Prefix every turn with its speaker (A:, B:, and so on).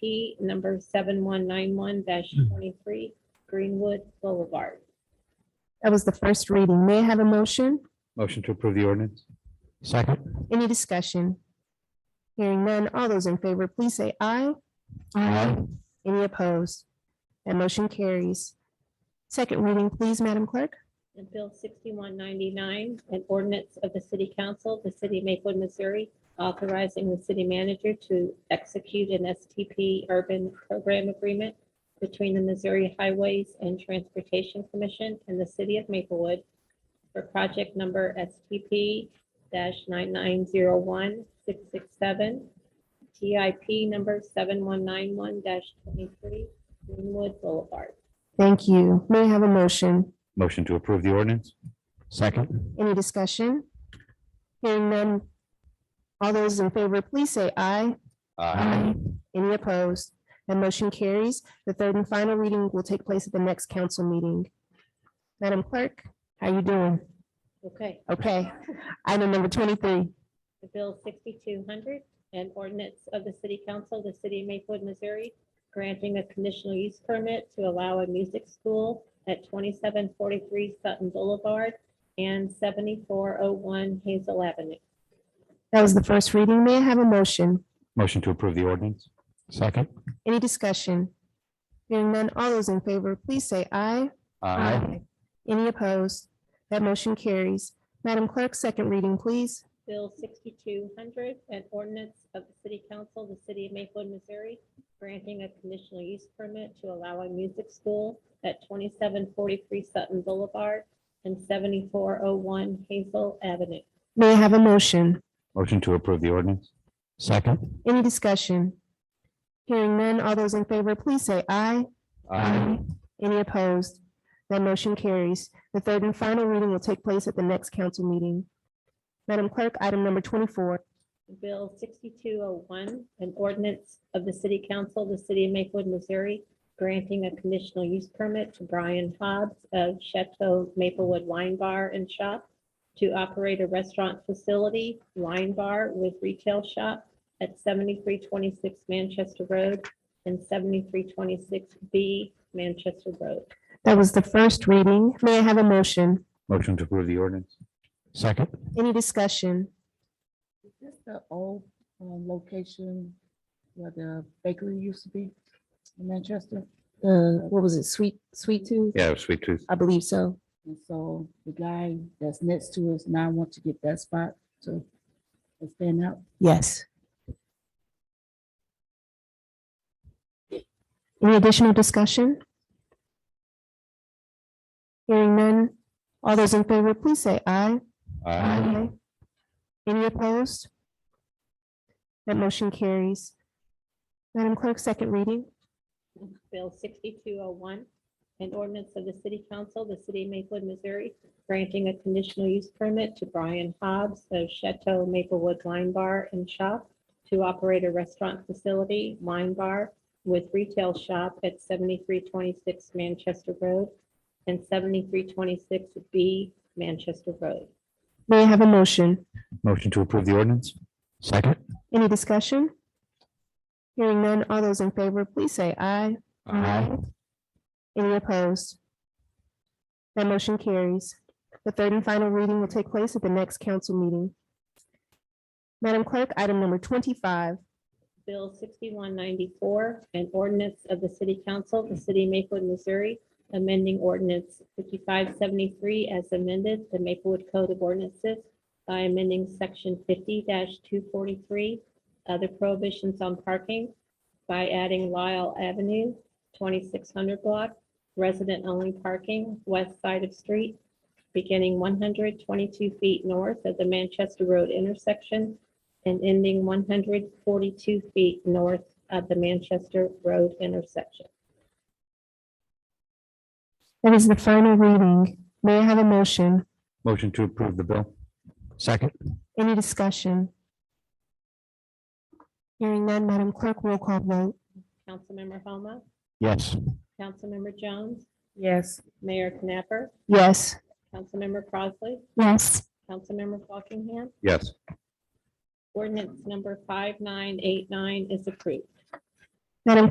A: P number seven one nine one twenty-three Greenwood Boulevard.
B: That was the first reading. May I have a motion?
C: Motion to approve the ordinance?
D: Second.
B: Any discussion? Hearing none, all those in favor, please say aye.
D: Aye.
B: Any opposed? That motion carries. Second reading, please, Madam Clerk.
A: And Bill sixty-one ninety-nine, an ordinance of the City Council, of the City of Maplewood, Missouri, authorizing the city manager to execute an STP urban program agreement between the Missouri Highways and Transportation Commission and the City of Maplewood for project number STP 9901 nine zero one six six seven, TIP number seven one nine one twenty-three, Greenwood Boulevard.
B: Thank you. May I have a motion?
C: Motion to approve the ordinance?
D: Second.
B: Any discussion? Hearing none, all those in favor, please say aye. Any opposed? That motion carries. The third and final reading will take place at the next council meeting. Madam Clerk, how you doing?
A: Okay.
B: Okay. Item number twenty-three.
A: the Bill 6200, an ordinance of the City Council of the City of Maplewood, Missouri, granting a conditional use permit to allow a music school at 2743 Sutton Boulevard and 7401 Hazel Avenue.
B: That was the first reading. May I have a motion?
C: Motion to approve the ordinance?
D: Second.
B: Any discussion? Hearing none, all those in favor, please say aye. Any opposed? That motion carries. Madam Clerk, second reading, please.
A: Bill 6200, an ordinance of the City Council of the City of Maplewood, Missouri, granting a conditional use permit to allow a music school at 2743 Sutton Boulevard and 7401 Hazel Avenue.
B: May I have a motion?
C: Motion to approve the ordinance?
D: Second.
B: Any discussion? Hearing none, all those in favor, please say aye. Any opposed? That motion carries. The third and final reading will take place at the next council meeting. Madam Clerk, item number twenty-four.
A: Bill sixty-two oh one, an ordinance of the city council of the city of Maplewood, Missouri, granting a conditional use permit to Brian Hobbs of Chateau Maplewood Wine Bar and Shop to operate a restaurant facility, wine bar with retail shop at seventy-three twenty-six Manchester Road and seventy-three twenty-six B Manchester Road.
B: That was the first reading. May I have a motion?
C: Motion to approve the ordinance?
D: Second.
B: Any discussion?
E: Is this the old uh, location where the bakery used to be in Manchester?
F: uh, what was it, Sweet, Sweet Tooth?
C: Yeah, sweet tooth.
F: I believe so.
E: And so the guy that's next to us now wants to get that spot to expand out.
F: Yes.
B: Any additional discussion? Hearing none. All those in favor, please say aye. Any opposed? That motion carries. Madam Clerk, second reading.
A: Bill sixty-two oh one, an ordinance of the city council, of the city of Maplewood, Missouri, granting a conditional use permit to Brian Hobbs of Chateau Maplewood Wine Bar and Shop to operate a restaurant facility, wine bar with retail shop at seventy-three twenty-six Manchester Road and seventy-three twenty-six B Manchester Road.
B: May I have a motion?
C: Motion to approve the ordinance?
D: Second.
B: Any discussion? Hearing none. All those in favor, please say aye. Any opposed? That motion carries. The third and final reading will take place at the next council meeting. Madam Clerk, item number twenty-five.
A: Bill sixty-one ninety-four, an ordinance of the City Council of the City of Maplewood, Missouri, amending ordinance fifty-five seventy-three as amended, the Maplewood Code of Ordinances by amending section fifty two forty-three, other prohibitions on parking by adding Lyle Avenue, twenty-six hundred block, resident-only parking, west side of street, beginning one hundred twenty-two feet north of the Manchester Road intersection and ending one hundred forty-two feet north of the Manchester Road intersection.
B: That is the final reading. May I have a motion?
C: Motion to approve the bill?
D: Second.
B: Any discussion? Hearing none, Madam Clerk, roll call vote.
A: Councilmember Homa,
D: Yes.
A: Councilmember Jones,
E: Yes.
A: Mayor Knapper,
B: Yes.
A: Councilmember Crossley,
B: Yes.
A: Councilmember Buckingham.
C: Yes.
A: Ordinance number five nine eight nine is approved.
B: Madam